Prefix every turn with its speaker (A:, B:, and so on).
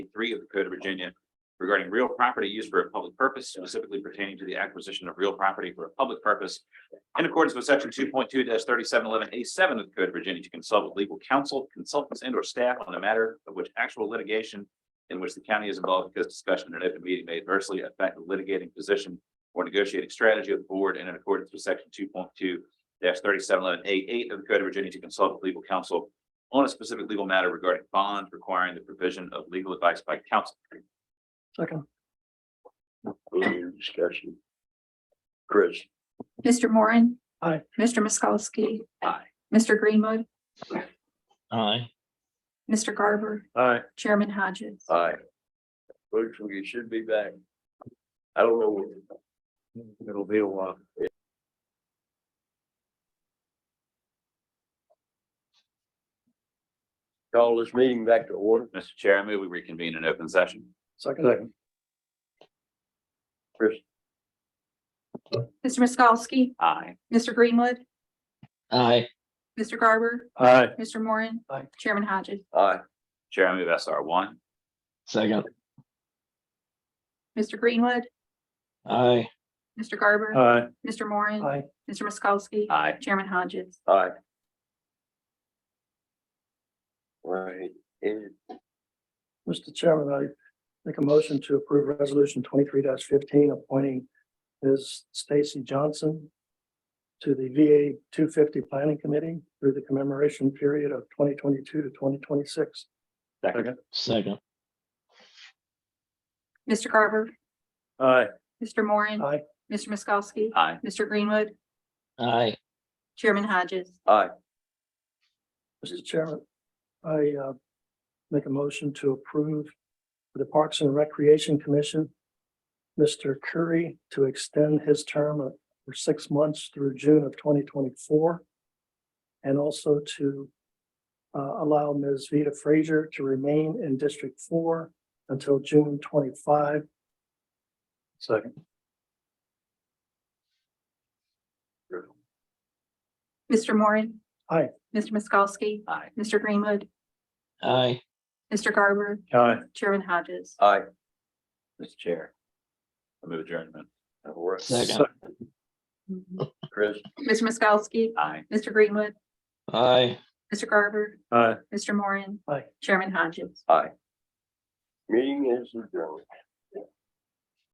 A: three of the Code of Virginia regarding real property used for a public purpose specifically pertaining to the acquisition of real property for a public purpose in accordance with section two point two thirty-seven eleven A seven of the Code of Virginia to consult with legal counsel, consultants and or staff on a matter of which actual litigation in which the county is involved because discussion in an open meeting may adversely affect the litigating position or negotiating strategy of the board and in accordance with section two point two thirty-seven eleven A eight of the Code of Virginia to consult with legal counsel on a specific legal matter regarding bonds requiring the provision of legal advice by counsel.
B: Second.
C: Any discussion? Chris,
D: Mr. Moran.
B: Aye.
D: Mr. Miskowski.
A: Aye.
D: Mr. Greenwood,
E: Aye.
D: Mr. Garber,
B: Aye.
D: Chairman Hodges.
C: aye. Looks like you should be back. I don't know.
B: It'll be a while.
C: Call this meeting back to order.
A: Mr. Chair, I move we reconvene in open session.
B: Second.
C: Chris,
D: Mr. Miskowski,
A: Aye.
D: Mr. Greenwood,
E: Aye.
D: Mr. Garber,
B: Aye.
D: Mr. Moran.
B: Aye.
D: Chairman Hodges.
C: aye.
A: Chair, I move SR one.
E: Second.
D: Mr. Greenwood,
E: Aye.
D: Mr. Garber,
B: Aye.
D: Mr. Moran.
B: Aye.
D: Mr. Miskowski.
A: Aye.
D: Chairman Hodges.
C: Aye. Right, and
B: Mr. Chairman, I make a motion to approve resolution twenty-three fifteen, appointing Ms. Stacy Johnson to the VA two fifty planning committee through the commemoration period of twenty twenty-two to twenty twenty-six. Second.
E: Second.
D: Mr. Garber,
B: Aye.
D: Mr. Moran.
B: Aye.
D: Mr. Miskowski.
A: Aye.
D: Mr. Greenwood,
E: Aye.
D: Chairman Hodges.
C: aye,
B: Mr. Chairman, I uh, make a motion to approve for the Parks and Recreation Commission, Mr. Curry to extend his term of- for six months through June of twenty twenty-four. And also to uh, allow Ms. Vita Frazier to remain in District Four until June twenty-five. Second.
D: Mr. Moran.
B: Aye.
D: Mr. Miskowski,
A: Aye.
D: Mr. Greenwood,
E: Aye.
D: Mr. Garber,
B: Aye.
D: Chairman Hodges.
C: aye.
A: Mr. Chair. I move adjournment.
C: All right.
E: Second.
C: Chris,
D: Mr. Miskowski,
A: Aye.
D: Mr. Greenwood,
E: Aye.
D: Mr. Garber,
B: Aye.
D: Mr. Moran.
B: Aye.
D: Chairman Hodges.
C: meeting is adjourned.